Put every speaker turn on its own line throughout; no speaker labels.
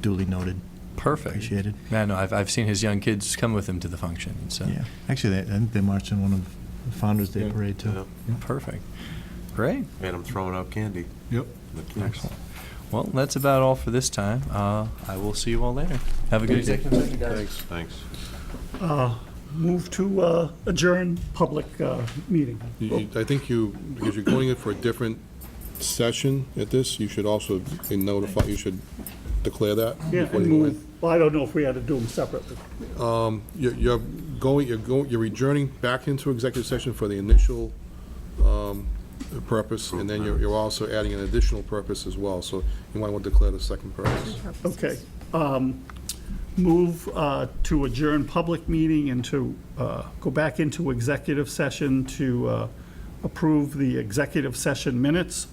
duly noted.
Perfect.
Appreciated.
Yeah, no, I've, I've seen his young kids come with him to the function. So
Yeah. Actually, they, I think they marched in one of the Founder's Day
Yeah.
Parade, too.
Yeah.
perfect. Great.
And I'm throwing out candy.
Yep.
The kids.
Excellent. Well, that's about all for this time. Uh, I will see you all later. Have a good evening.
Thanks. Thanks.
Move to uh, adjourn public uh, meeting.
You- you- I think you, because you're going in for a different session at this, you should also notify, you should declare that.
Yeah,
before
and
you go in.
move, well, I don't know if we had to do them separately.
You're you're going, you're going, you're adjourning back into executive session for the initial um, purpose, and then you're you're also adding an additional purpose as well, so you might want to declare the second purpose.
Okay. um, Move uh, to adjourn public meeting and to uh, go back into executive session to uh, approve the executive session minutes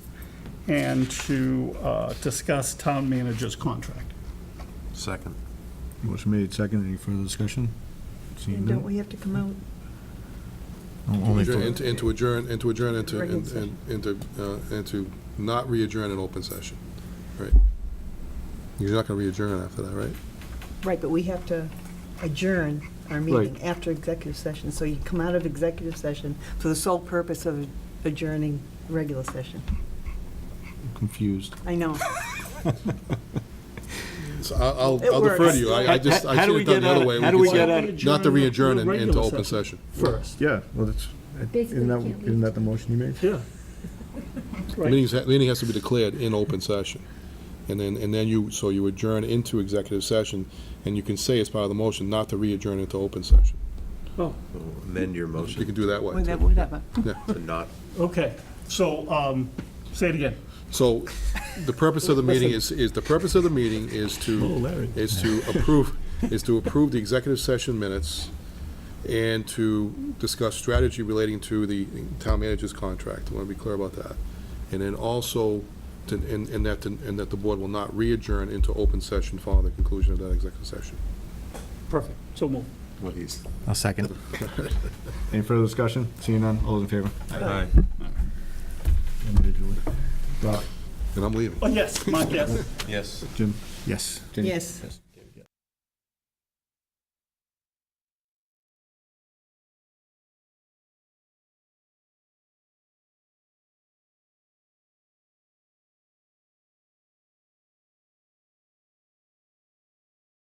and to uh, discuss town manager's contract.
Second.
Motion made, second. Any further discussion? Seeing
And don't
none? Oh,
we have to come out?
Only for-
And to- and to adjourn, and to adjourn, and to,
Regular
and-
session.
and- and to, uh, and to not re-adjourn an open session, right? You're not going to re-adjourn after that, right?
Right, but we have to adjourn our meeting after executive session. So you come out of executive session for the sole purpose of adjourning regular session.
Confused.
I know.
So I- I'll,
It
I'll defer
works.
to you. I I just, I
How do
should
we
have done
get
the other
out-
way.
how do we
could say
get out-
Not to re-adjourn and into open session.
First,
Yeah, well, that's,
Basically,
isn't that,
can't leave.
isn't that the motion you made?
yeah.
The meeting's- the meeting has to be declared in open session. And then, and then you, so you adjourn into executive session, and you can say as part of the motion not to re-adjourn into open session.
Oh,
Amend your
You can
motion
do that way.
Whatever,
too.
whatever.
to not
okay. So, um, say it again.
So the purpose of the meeting is, is, the purpose of the meeting is to, is to approve, is to approve the executive session minutes and to discuss strategy relating to the town manager's contract. I want to be clear about that. And then also, to- and, and that, and that the board will not re-adjourn into open session following the conclusion of that executive session.
Perfect. So move.
what he's.
I'll second.
Any further discussion? Seeing none? All those in favor?
Aye.
Individually.
Rob,
And I'm leaving.
Oh, yes, Mark, yes.
Yes.
Jim?
Yes.
Jenny?
Yes.